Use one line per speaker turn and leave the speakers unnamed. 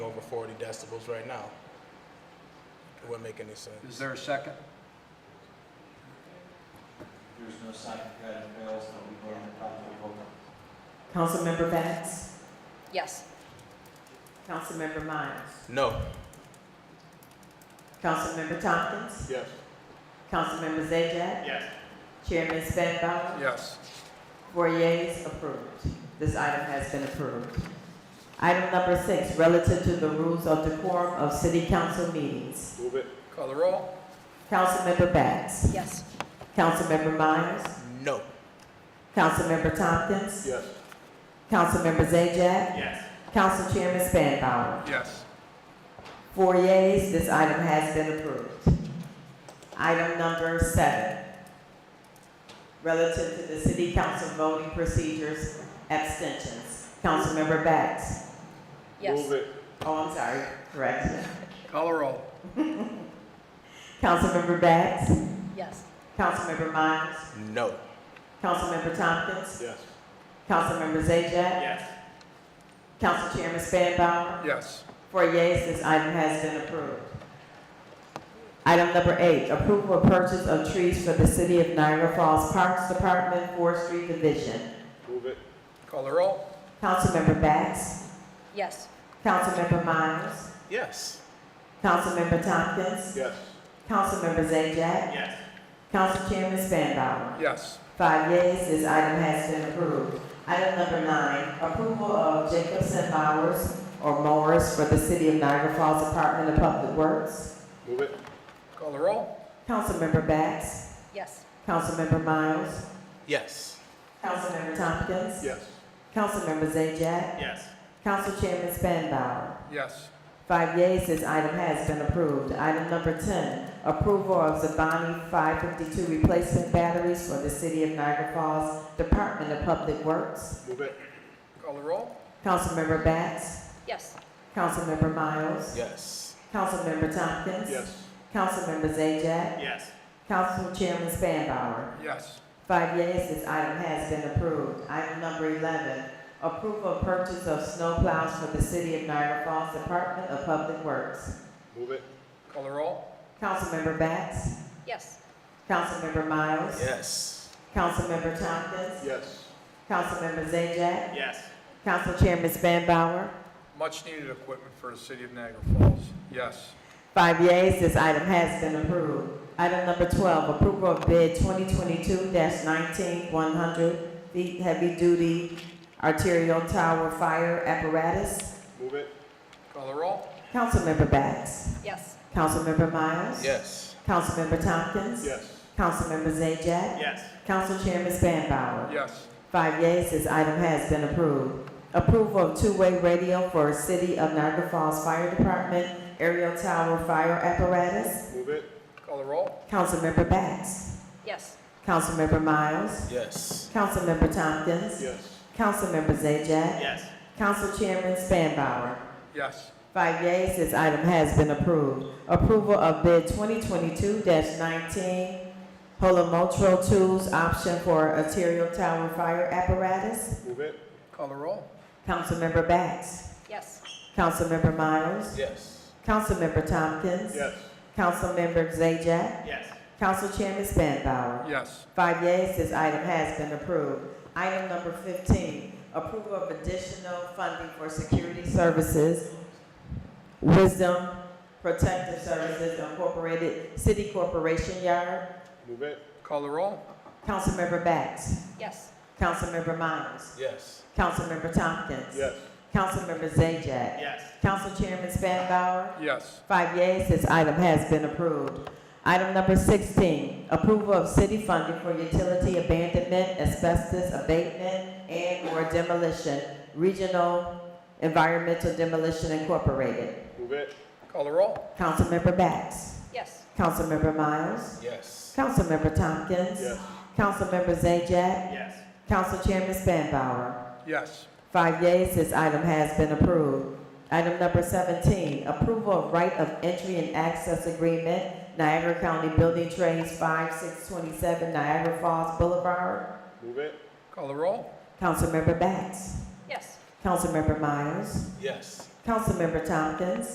over 40 decibels right now. It wouldn't make any sense.
Is there a second?
There's no sign of that fails, that we go on the top of the vote.
Councilmember Bass,
Yes.
Councilmember Miles,
No.
Councilmember Tompkins,
Yes.
Councilmember Zajac,
Yes.
Chairman Spanbauer,
Yes.
Four yeas, approved. This item has been approved. Item number six, relative to the rules of decorum of city council meetings.
Move it.
Call the roll?
Councilmember Bass,
Yes.
Councilmember Myers,
No.
Councilmember Tompkins,
Yes.
Councilmember Zajac,
Yes.
Council Chairman Spanbauer.
Yes.
Four yeas, this item has been approved. Item number seven, relative to the city council voting procedures, abstentions. Councilmember Bass,
Yes.
it.
Oh, I'm sorry, correct.
Call the roll?
Councilmember Bax,
Yes.
Councilmember Miles,
No.
Councilmember Tompkins,
Yes.
Councilmember Zajac,
Yes.
Council Chairman Spanbauer.
Yes.
Four yeas, this item has been approved. Item number eight, approval of purchase of trees for the City of Niagara Falls Parks Department Forestry Division.
Move it.
Call the roll?
Councilmember Bax,
Yes.
Councilmember Miles,
Yes.
Councilmember Tompkins,
Yes.
Councilmember Zajac,
Yes.
Council Chairman Spanbauer.
Yes.
Five yeas, this item has been approved. Item number nine, approval of Jacobson Mowers or mowers for the City of Niagara Falls Department of Public Works.
Move it.
Call the roll?
Councilmember Bax,
Yes.
Councilmember Miles,
Yes.
Councilmember Tompkins,
Yes.
Councilmember Zajac,
Yes.
Council Chairman Spanbauer.
Yes.
Five yeas, this item has been approved. Item number ten, approval of Zabani five fifty-two replacement batteries for the City of Niagara Falls Department of Public Works.
Move it.
Call the roll?
Councilmember Bax,
Yes.
Councilmember Miles.
Yes.
Councilmember Tompkins. Councilmember Zajac,
Yes.
Council Chairman Spanbauer.
Yes.
Five yeas, this item has been approved. Item number eleven, approval of purchase of snowplows for the City of Niagara Falls Department of Public Works.
Move it.
Call the roll?
Councilmember Bax,
Yes.
Councilmember Miles.
Yes.
Councilmember Tompkins.
Yes.
Councilmember Zajac,
Yes.
Council Chairman Spanbauer.
Much-needed equipment for the city of Niagara Falls. Yes.
Five yeas, this item has been approved. Item number twelve, approval of bid twenty twenty-two nineteen one hundred, the heavy-duty arterial tower fire apparatus.
Move it.
Call the roll?
Councilmember Bax,
Yes.
Councilmember Miles.
Yes.
Councilmember Tompkins.
Yes.
Councilmember Zajac.
Yes.
Council Chairman Spanbauer.
Yes.
Five yeas, this item has been approved. Approval of two-way radio for City of Niagara Falls Fire Department aerial tower fire apparatus.
Move it.
Call the roll?
Councilmember Bax.
Yes.
Councilmember Miles.
Yes.
Councilmember Tompkins.
Yes.
Councilmember Zajac,
Yes.
Council Chairman Spanbauer.
Yes.
Five yeas, this item has been approved. Approval of bid 2022-19, Holomotro Tools option for arterial tower fire apparatus.
Move it.
Call the roll?
Councilmember Bax.
Yes.
Councilmember Miles.
Yes.
Councilmember Tompkins.
Yes.
Councilmember Zajac,
Yes.
Council Chairman Spanbauer.
Yes.
Five yeas, this item has been approved. Item number fifteen, approval of additional funding for security services, Wisdom Protective Services Incorporated, City Corporation Yard.
Move it.
Call the roll?
Councilmember Bax,
Yes.
Councilmember Miles,
Yes.
Councilmember Tompkins.
Yes.
Councilmember Zajac,
Yes.
Council Chairman Spanbauer.
Yes.
Five yeas, this item has been approved. Item number sixteen, approval of city funding for utility abandonment, asbestos abatement, and/or demolition, Regional Environmental Demolition Incorporated.
Move it.
Call the roll?
Councilmember Bax,
Yes.
Councilmember Miles,
Yes.
Councilmember Tompkins.
Yes.
Councilmember Zajac,
Yes.
Council Chairman Spanbauer.
Yes.
Five yeas, this item has been approved. Item number seventeen, approval of right of entry and access agreement, Niagara County Building Trades, five six twenty-seven Niagara Falls Boulevard.
Move it.
Call the roll?
Councilmember Bax,
Yes.
Councilmember Miles,
Yes.
Councilmember Tompkins.